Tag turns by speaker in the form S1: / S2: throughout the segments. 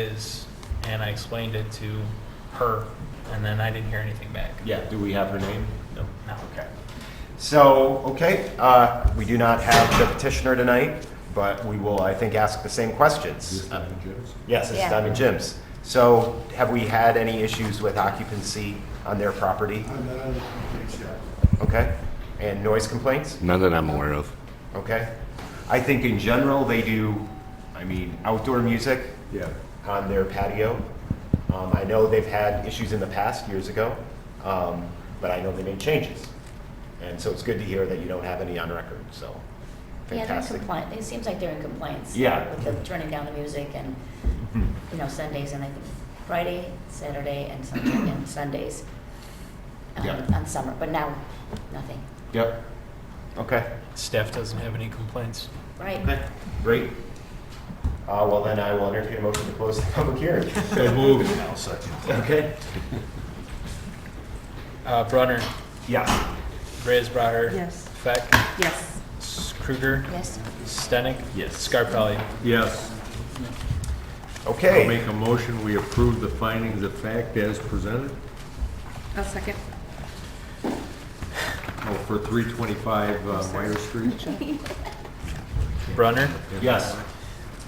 S1: is, and I explained it to her, and then I didn't hear anything back.
S2: Yeah, do we have her name? No.
S1: No.
S2: Okay. So, okay, uh, we do not have the petitioner tonight, but we will, I think, ask the same questions. Yes, it's
S3: Yeah.
S2: Diamond Jim's. So have we had any issues with occupancy on their property? Okay, and noise complaints?
S4: None that I'm aware of.
S2: Okay. I think in general, they do, I mean, outdoor music
S5: Yeah.
S2: on their patio. Um, I know they've had issues in the past, years ago, um, but I know they made changes. And so it's good to hear that you don't have any on record, so
S3: Yeah, they're in
S2: fantastic.
S3: compliance, it seems like they're in compliance.
S2: Yeah.
S3: With the turning down the music and,
S2: Mhm.
S3: you know, Sundays and I think Friday, Saturday and Sunday, and Sundays. um,
S2: Yeah.
S3: On summer, but now, nothing,
S2: Yep. Okay,
S1: Staff doesn't have any complaints.
S3: right?
S2: great. Uh, well, then I will entertain a motion to close the public hearing.
S5: So moved. I'll second.
S2: Okay.
S1: Uh, Brunner,
S2: Yeah.
S1: Reyes Braher.
S6: Yes.
S1: Feck,
S6: Yes.
S1: S- Kruger,
S3: Yes,
S1: Stenick.
S5: Yes.
S1: Scarpelli.
S5: Yes. I'll
S2: Okay.
S5: make a motion, we approve the findings of fact as presented,
S6: I'll second.
S5: oh, for 325 uh, Meyer Street.
S1: Brunner,
S2: Yes.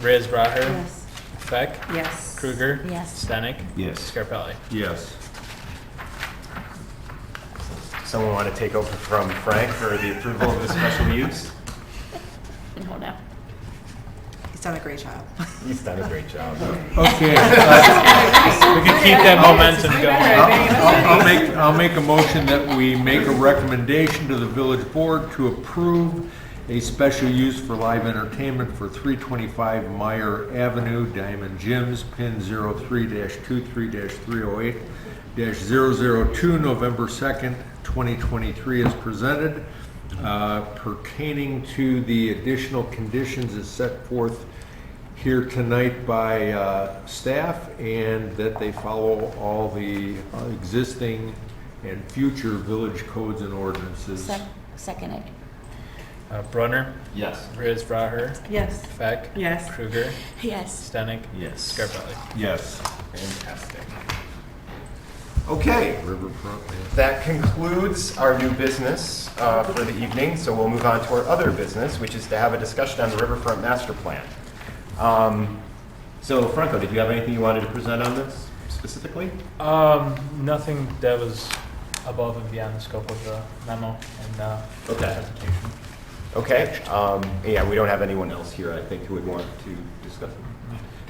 S1: Reyes Braher.
S6: Yes.
S1: Feck,
S6: Yes.
S1: Kruger.
S3: Yes.
S1: Stenick.
S5: Yes.
S1: Scarpelli.
S5: Yes.
S2: Someone want to take over from Frank for the approval of the special use?
S3: and hold on.
S6: He's done a great job.
S2: He's done a great job.
S5: Okay, uh,
S1: We can keep that momentum going.
S5: I'll I'll make, I'll make a motion that we make a recommendation to the village board to approve a special use for live entertainment for 325 Meyer Avenue, Diamond Jim's, pin 03-23-308-002, November 2nd, 2023, as presented, uh, pertaining to the additional conditions as set forth here tonight by uh, staff and that they follow all the uh, existing and future village codes and ordinances.
S3: Sec- Second it.
S1: Uh, Brunner,
S2: Yes.
S1: Reyes Braher.
S6: Yes.
S1: Feck.
S6: Yes.
S1: Kruger,
S3: Yes.
S1: Stenick.
S5: Yes.
S1: Scarpelli.
S5: Yes.
S2: Fantastic. Okay,
S5: Riverfront. man.
S2: that concludes our new business uh, for the evening, so we'll move on to our other business, which is to have a discussion on the Riverfront Master Plan. Um, So Franco, did you have anything you wanted to present on this specifically?
S1: Um, nothing that was above and beyond the scope of the memo and, uh,
S2: Okay.
S1: presentation.
S2: Okay, um, yeah, we don't have anyone else here, I think, who would want to discuss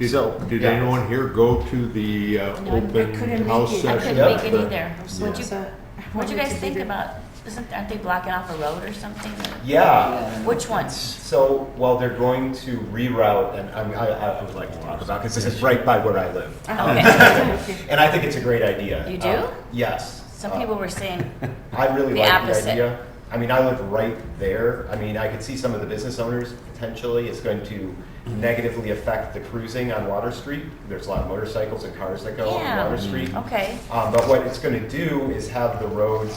S2: it. So,
S5: Did, did
S2: yeah.
S5: anyone here go to the uh,
S3: No, I- I
S5: open
S6: couldn't
S5: house
S6: make it.
S5: session?
S3: I couldn't
S2: Yep.
S3: make it either. What'd you, what'd
S6: what'd
S3: you guys think about, isn't, aren't they blocking off a road or something?
S2: Yeah,
S3: Which ones?
S2: so, well, they're going to reroute, and I'm- I, I would like to talk about, because this is right by where I live.
S6: Okay.
S2: And I think it's a great idea.
S3: You do?
S2: Um, Yes.
S3: Some
S2: Uh,
S3: people were saying,
S2: I really
S3: the
S2: like
S3: opposite.
S2: the idea. I mean, I live right there. I mean, I could see some of the business owners potentially. It's going to negatively affect the cruising on Water Street. There's a lot of motorcycles and cars that go on
S3: Yeah. Mm-hmm.
S2: Water Street.
S3: okay,
S2: Um, but what it's going to do is have the road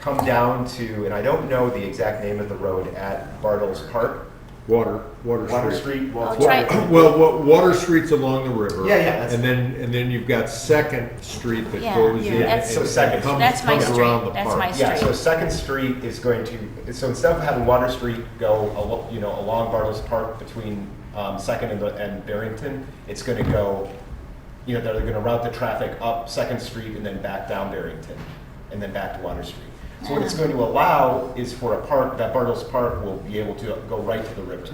S2: come down to, and I don't know the exact name of the road at Bartles Park,
S5: Water, Water Street.
S2: Water Streat.
S3: I'll
S2: Well,
S3: Oh, try-
S5: Well, wa- Water Street's along the river.
S2: Yeah, yeah, that's-
S5: And then, and then you've got Second Street that
S3: Yeah,
S5: goes
S6: yeah,
S5: in.
S3: that's-
S2: So
S5: and
S2: Second.
S5: comes-
S3: That's my
S5: comes
S3: street,
S5: around the
S3: that's
S5: park.
S3: my
S2: Yeah, so
S3: Street.
S2: Second Street is going to, so instead of having Water Street go, alo- you know, along Bartles Park between um, Second and the- and Barrington, it's going to go, you know, they're going to route the traffic up Second Street and then back down Barrington, and then back to Water Street. So what it's going to allow is for a park, that Bartles Park will be able to go right to the river.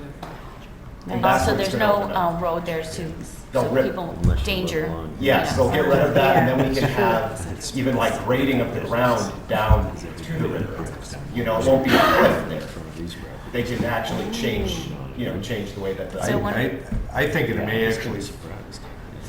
S3: and
S2: that's
S3: also
S2: what's
S3: there's
S2: gonna
S3: no
S2: open up.
S3: um, road there to,
S2: No,
S3: so
S2: rip-
S3: people, danger.
S2: Yes,
S3: you know.
S2: they'll get rid of that, and then we can have even like grading of the ground down to the river. You know, it won't be a cliff there. They can actually change, you know, change the way that the.
S5: I,
S3: So when-
S5: I, I think it may actually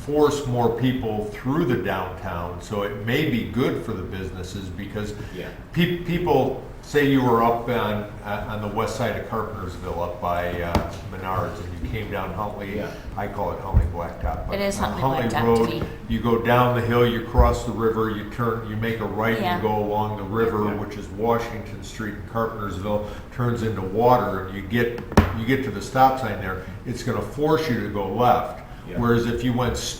S5: force more people through the downtown, so it may be good for the businesses because
S2: Yeah.
S5: pe- people, say you were up on, uh, on the west side of Carpentersville, up by uh, Menards, and you came down Huntley,
S2: Yeah.
S5: I call it Huntley Blacktop. but
S3: It is
S5: on
S3: Huntley Blacktop to me.
S5: Road, You go down the hill, you cross the river, you turn, you make a right,
S3: Yeah.
S5: you go along the river,
S2: Yeah.
S5: which is Washington Street in Carpentersville, turns into water, and you get, you get to the stop sign there, it's gonna force you to go left.
S2: Yeah.
S5: Whereas if you went s-